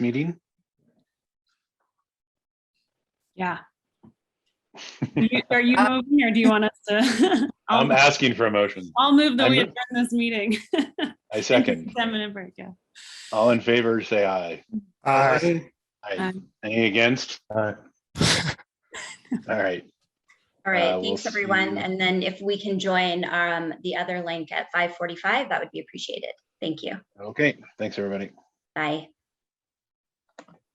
meeting? Yeah. Are you- Are you moving or do you want us to? I'll- I'm asking for a motion. I'll move that I'm we move- adjourn this meeting. I second. Ten minute break, yeah. All in favor, say aye. Aye. Aye. Aye. Any against? All right. All Uh, right, we'll thanks, everyone. see. And then if we can join um, the other link at 5:45, that would be appreciated. Thank you. Okay. Thanks, everybody. Bye.